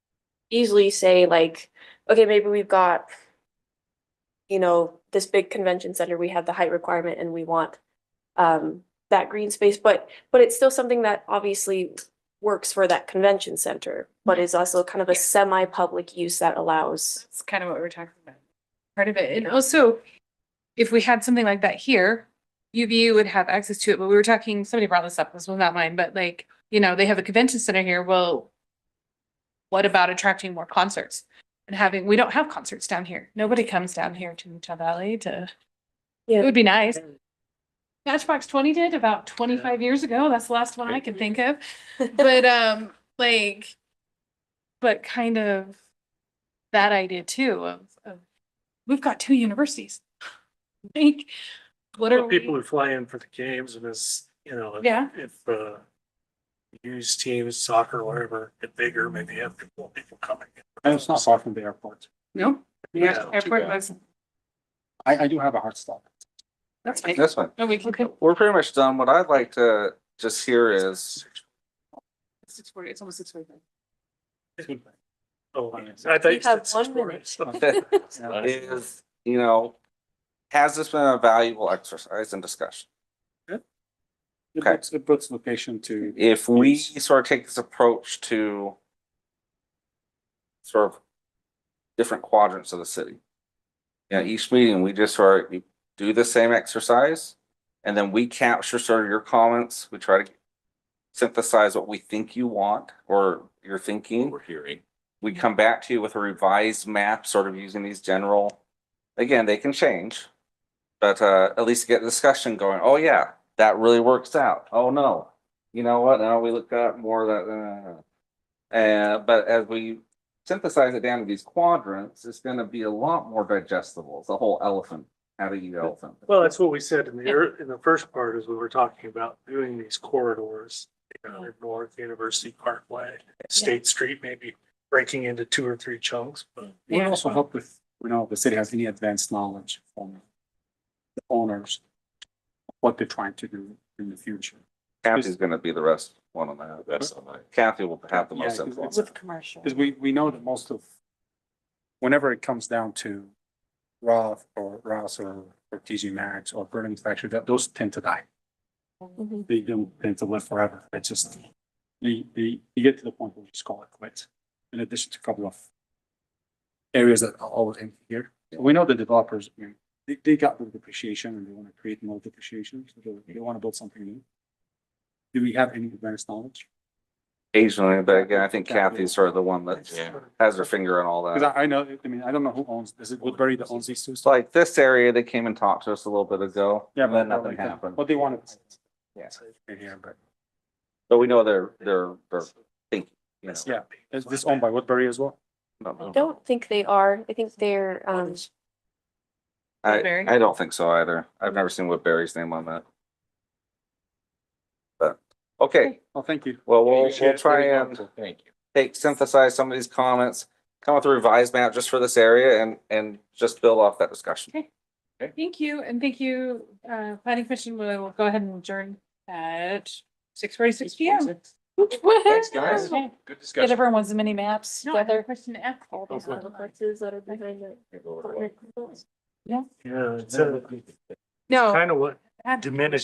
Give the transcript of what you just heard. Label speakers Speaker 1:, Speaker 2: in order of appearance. Speaker 1: easily say like, okay, maybe we've got, you know, this big convention center, we have the height requirement and we want um, that green space, but, but it's still something that obviously works for that convention center, but is also kind of a semi-public use that allows.
Speaker 2: That's kind of what we're talking about. Part of it. And also, if we had something like that here, UVU would have access to it, but we were talking, somebody brought this up, this was not mine, but like, you know, they have a convention center here. Well, what about attracting more concerts? And having, we don't have concerts down here. Nobody comes down here to Utah Valley to, it
Speaker 1: Yeah.
Speaker 2: would be nice. Matchbox Twenty did about twenty-five years ago. That's the last one I can think of. But um, like, but kind of that idea too of, of, we've got two universities. Like, what are
Speaker 3: Well, People
Speaker 2: we?
Speaker 3: who fly in for the games and as, you know, if-
Speaker 2: Yeah.
Speaker 3: if, uh, use teams, soccer, whatever, get bigger, maybe have people, people coming.
Speaker 4: And it's not far from the airport.
Speaker 2: No.
Speaker 3: Yeah.
Speaker 2: Airport
Speaker 4: bad.
Speaker 2: was,
Speaker 4: I, I do have a hard stop.
Speaker 2: that's fine.
Speaker 5: That's fine.
Speaker 2: Oh, we can,
Speaker 5: We're pretty much done. What I'd like to just hear is,
Speaker 2: six forty, it's almost six forty-five.
Speaker 3: Oh, I thought
Speaker 1: You
Speaker 3: you
Speaker 1: have
Speaker 3: said six
Speaker 1: one minute.
Speaker 3: stories.
Speaker 5: is, you know, has this been a valuable exercise and discussion?
Speaker 4: It puts, it puts location to,
Speaker 5: If we sort of take this approach to sort of different quadrants of the city. You know, each meeting, we just sort of do the same exercise and then we capture sort of your comments. We try to synthesize what we think you want or you're thinking.
Speaker 6: we're hearing.
Speaker 5: we come back to you with a revised map, sort of using these general, again, they can change. But uh, at least get discussion going, oh yeah, that really works out, oh no, you know what, now we look up more of that, uh. uh, but as we synthesize it down to these quadrants, it's gonna be a lot more digestible, it's a whole elephant, how do you eat elephant?
Speaker 3: Well, that's what we said in the, ear- in the first part is we were talking about doing these corridors. you know, North University Parkway, State Street, maybe breaking into two or three chunks, but.
Speaker 4: it would also help if, you know, the city has any advanced knowledge from the owners, what they're trying to do in the future.
Speaker 5: Kathy's gonna be the rest, one on that,
Speaker 6: That's on my.
Speaker 5: Kathy will have the
Speaker 4: Yeah,
Speaker 5: most
Speaker 4: 'cause
Speaker 5: influence.
Speaker 4: it's-
Speaker 2: commercial.
Speaker 4: Because we, we know that most of, whenever it comes down to Roth or Rouse or, or TG Maxx or Burning Factory, that those tend to die.
Speaker 2: Mm-hmm.
Speaker 1: Mhm.
Speaker 4: They don't tend to live forever. It's just, you, you, you get to the point where you just call it quits. In addition to a couple of areas that are always empty here. We know the developers, I mean, they, they got the depreciation and they want to create more depreciation. so They, they want to build something new. Do we have any advanced knowledge?
Speaker 5: Occasionally, but again, I think
Speaker 4: Kathy will-
Speaker 5: Kathy's sort of the one that
Speaker 6: Yeah.
Speaker 5: has her finger on all that.
Speaker 4: Because I, I know, I mean, I don't know who owns, is it Woodbury that owns these two?
Speaker 5: It's like this area, they came and talked to us a little bit ago.
Speaker 4: Yeah,
Speaker 5: and
Speaker 4: but
Speaker 5: then nothing happened.
Speaker 4: What they wanted.
Speaker 5: Yeah.
Speaker 4: Yeah, but
Speaker 5: But we know they're, they're, they're thinking, you know.
Speaker 4: Yeah. is this owned by Woodbury as well?
Speaker 5: Don't
Speaker 1: I
Speaker 5: know.
Speaker 1: don't think they are. I think they're, um,
Speaker 5: I,
Speaker 2: Woodbury?
Speaker 5: I don't think so either. I've never seen Woodbury's name on that. But, okay,
Speaker 4: Oh, thank you.
Speaker 5: well, we'll, we'll try and
Speaker 6: Thank you.
Speaker 5: take, synthesize some of these comments, come up with a revised map just for this area and, and just build off that discussion.
Speaker 2: Thank you, and thank you, uh, planning commission, we will go ahead and adjourn at six forty-six P M.
Speaker 6: Thanks, guys. Good
Speaker 2: Get
Speaker 6: discussion.
Speaker 2: everyone as many maps together. Question F.
Speaker 1: these complexes that are behind it.
Speaker 6: Go over it.
Speaker 3: Yeah, it's kind
Speaker 6: Yeah.
Speaker 3: of what
Speaker 2: Add-
Speaker 3: diminished